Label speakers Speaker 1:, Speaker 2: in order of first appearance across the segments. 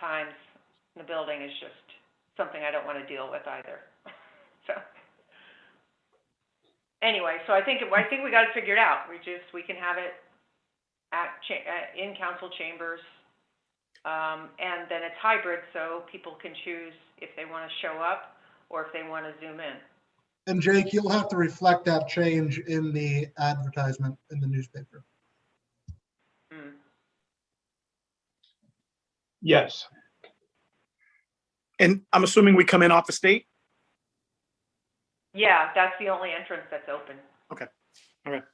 Speaker 1: times in the building is just something I don't wanna deal with either, so. Anyway, so I think, I think we got it figured out, we just, we can have it at cha- uh, in council chambers. Um, and then it's hybrid, so people can choose if they wanna show up or if they wanna zoom in.
Speaker 2: And Jake, you'll have to reflect that change in the advertisement in the newspaper.
Speaker 1: Mm.
Speaker 3: Yes.
Speaker 4: And I'm assuming we come in off the state?
Speaker 1: Yeah, that's the only entrance that's open.
Speaker 4: Okay. All right.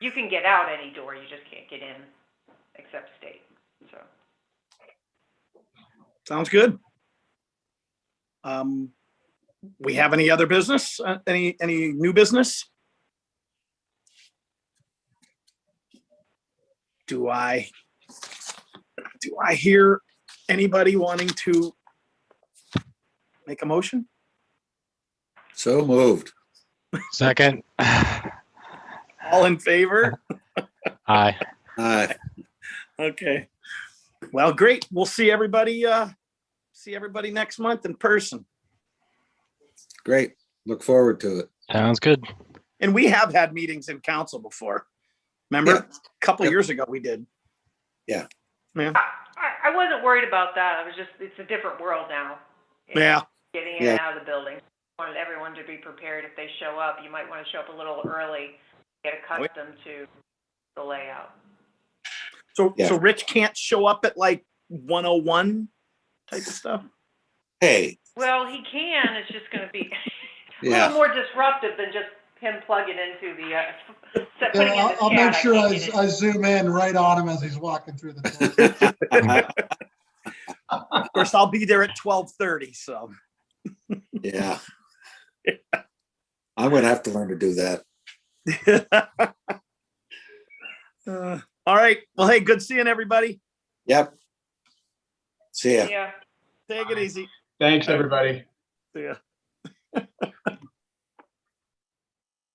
Speaker 1: You can get out any door, you just can't get in except state, so.
Speaker 4: Sounds good. Um, we have any other business? Uh, any, any new business? Do I, do I hear anybody wanting to make a motion?
Speaker 5: So moved.
Speaker 3: Second.
Speaker 4: All in favor?
Speaker 3: Aye.
Speaker 5: Aye.
Speaker 4: Okay. Well, great. We'll see everybody, uh, see everybody next month in person.
Speaker 5: Great. Look forward to it.
Speaker 3: Sounds good.
Speaker 4: And we have had meetings in council before. Remember,
Speaker 5: Yeah.
Speaker 4: a couple
Speaker 5: Yep.
Speaker 4: years ago, we did.
Speaker 1: I, I wasn't worried about that, I was just, it's a different world now.
Speaker 4: Yeah,
Speaker 1: Getting in and out of the building. Wanted everyone to be prepared if they show up, you might wanna show up a little early, get
Speaker 4: yeah.
Speaker 1: accustomed to the layout.
Speaker 4: so,
Speaker 5: Yeah.
Speaker 4: so Rich can't show up at like one oh one type of stuff.
Speaker 5: Hey,
Speaker 1: Well, he can, it's just gonna be a little
Speaker 5: yeah,
Speaker 1: more disruptive than just him plugging into the, uh, set-
Speaker 2: Yeah,
Speaker 1: putting in the
Speaker 2: I'll, I'll
Speaker 1: chat,
Speaker 2: make sure
Speaker 1: can't
Speaker 2: I,
Speaker 1: get in.
Speaker 2: I zoom in right on him as he's walking through the door.
Speaker 4: Of course, I'll be there at twelve thirty, so.
Speaker 5: yeah. I'm gonna have to learn to do that.
Speaker 4: Uh, All right. Well, hey, good seeing everybody.
Speaker 5: Yep. See ya.
Speaker 1: Yeah.
Speaker 4: Take it easy.
Speaker 6: Thanks, everybody.
Speaker 4: See ya.